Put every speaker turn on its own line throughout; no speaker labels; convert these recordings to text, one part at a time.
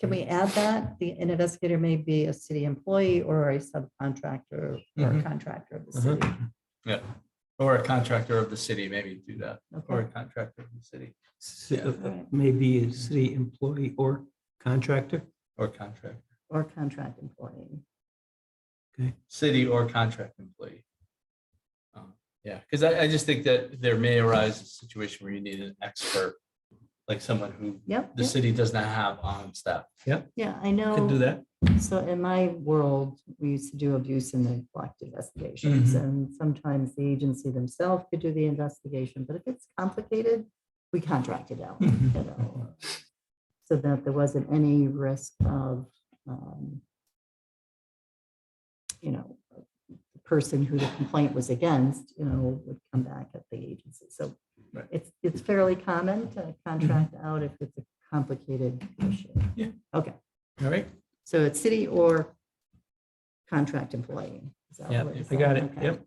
Can
Mm-hmm.
we add that? The an investigator may be a city employee or a subcontractor or a
Mhm.
contractor of the
Mhm.
city.
Yeah, or a contractor of the city, maybe do that, or a
Okay.
contractor of the city,
uh,
Si-
Yeah.
Maybe a city employee or contractor.
or contract,
Or contract employee.
city or contract employee. Um, Yeah, because I, I just think that there may arise a situation where you need an expert, like someone who
Yep.
the
yep.
city does not have on staff.
Yeah, I
Could
know.
do that.
So in my world, we used to do abuse and neglect investigations
Mhm.
and sometimes the agency themselves could do the investigation, but if it's complicated, we contract it out. you
Mm-hmm.
know, So that there wasn't any risk of, um, you know, the person who the complaint was against, you know, would come back at the agency. So
Right. Mm-hmm.
it's, it's fairly common to contract out if it's a complicated issue.
Yeah.
Okay,
All right,
so it's city or contract employee. Is that
Yeah,
what you're
I got
saying?
it.
Okay.
Yep.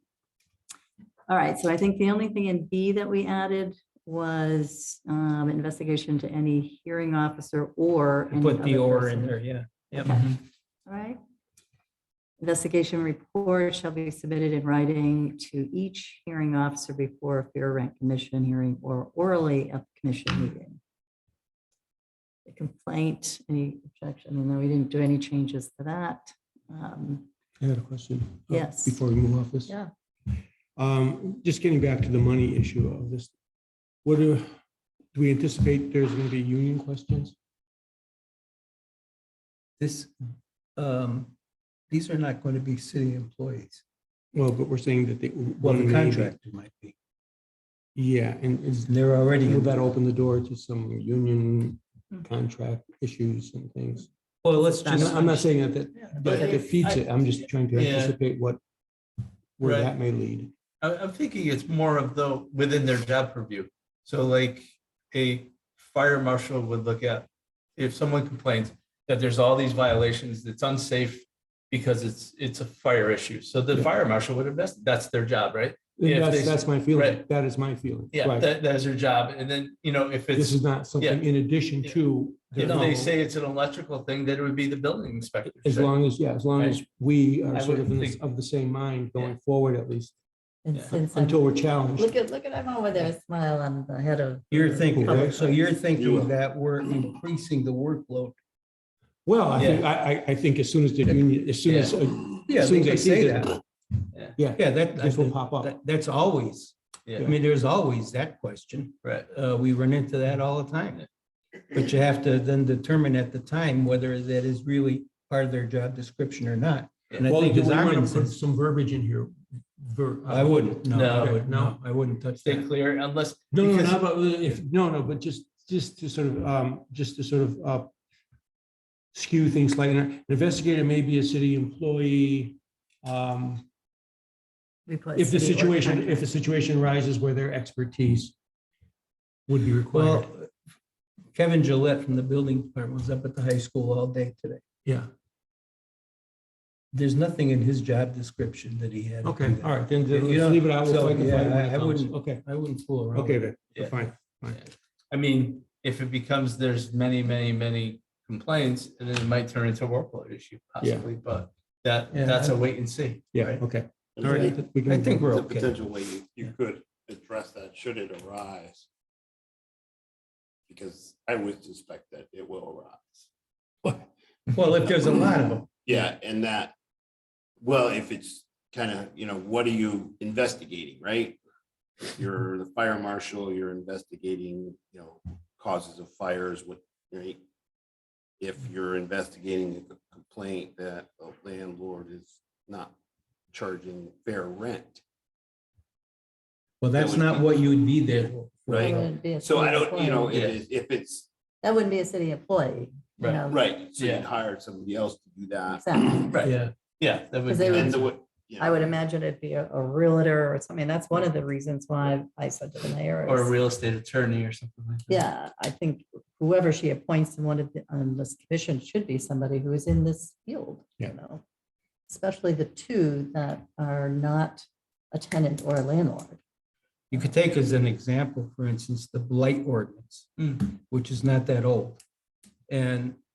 All right, so I think the only thing in B that we added was um, investigation to any hearing officer or. any
Put the
other
or in
person.
there, yeah. Yep.
Okay. All right. Investigation report shall be submitted in writing to each hearing officer before a fair rent commission hearing or orally at the commission meeting. The complaint, any objection, and then we didn't do any changes to that. Um,
I had a question. uh,
Yes.
Before we move off this.
Yeah.
Um, just getting back to the money issue of this, what do, do we anticipate there's gonna be union questions?
This, um, these are not going to be city employees.
Well, but we're saying that they.
Well,
one
the
may be-
contractor might be.
Yeah, and is,
They're already,
will that open the door to some union contract issues and things?
Well, let's
I'm
just,
not- I'm not saying that, that-
But
that defeats it, I'm just trying to
Yeah.
anticipate what, where
Right.
that may lead.
I, I'm thinking it's more of the, within their job purview. So like a fire marshal would look at, if someone complains that there's all these violations, it's unsafe because it's, it's a fire issue. So the fire marshal would invest, that's their job, right? Yeah, if
That's,
they-
that's my feeling,
right.
that is my feeling.
Yeah,
Right.
that, that is their job. And then, you know, if
This
it's,
is not something in addition
Yeah.
to. their
if they
normal.
say it's an electrical thing, then it would be the building inspector.
As long as, yeah, as long as we are
I
sort of
wouldn't
in this,
think-
of the same mind going forward at least,
And
Yeah.
since I'm-
until we're challenged.
Look at, look at, I'm over there, smile on the head of.
you're thinking,
Okay.
so you're
will.
thinking that we're increasing the workload.
Well, I think, I, I, I think as soon as the union, as soon as,
Yeah,
as
they
soon as I
could
see
say
that,
that.
yeah,
Yeah, that,
this will
that-
pop up.
that's always, I
Yeah,
mean, there's always that question.
right.
Uh, we run into that all the time. But you have to then determine at the time whether that is really part of their job description or not. And I
Well,
think
do
as
we want
Armin
to put
says,
some verbiage in here? Ver- uh,
I wouldn't, no,
No.
I would, no, I wouldn't touch
Stay
that.
clear unless.
No, no,
because-
no, but uh, if, no, no, but just, just to sort of, um, just to sort of, uh, skew things like an investigator may be a city employee. Um, if the situation, if the situation arises where their expertise would be required.
Well, Kevin Gillette from the building department was up at the high school all day today.
Yeah,
There's nothing in his job description that he had. to do
okay,
that.
all right, then
You
then
know,
let's leave it out. We'll
so,
fight the
yeah,
fight when
I-
it
I
comes.
wouldn't-
Okay,
I wouldn't fool around.
okay,
with it.
then,
Yeah.
fine.
I mean, if it becomes, there's many, many, many complaints, and then it might turn into a workload issue possibly, but that,
Yeah.
that's a wait and see.
Yeah,
right?
okay.
And
All
I-
right, we can-
I think we're
There's a
okay.
potential way you, you could address that should it arise. Because I would suspect that it will arise.
Well, if there's a lot of them,
Yeah, and that, well, if it's kind of, you know, what are you investigating, right? If you're
Mm-hmm.
the fire marshal, you're investigating, you know, causes of fires, what, right? If you're investigating a complaint that a landlord is not charging fair rent,
well, that's
would
not
be-
what you would be there. for.
right? So I don't, you know, it is- if it's,
That wouldn't be a city employee. you
Right,
know,
right, so
Yeah.
you'd hire somebody else to do that.
Exactly.
Right,
Yeah,
yeah. that would
Because they
be-
would-
And the way- yeah.
I would imagine it'd be a a realtor or something. That's one of the reasons why I said to the mayor.
Or a
is-
real estate attorney or something like that.
Yeah, I think whoever she appoints in one of the, on um, this commission should be somebody who is in this field, you
Yeah.
know? Especially the two that are not a tenant or a landlord.
you could take as an example, for instance, the blight ordinance,
Mm.
which is not that old. And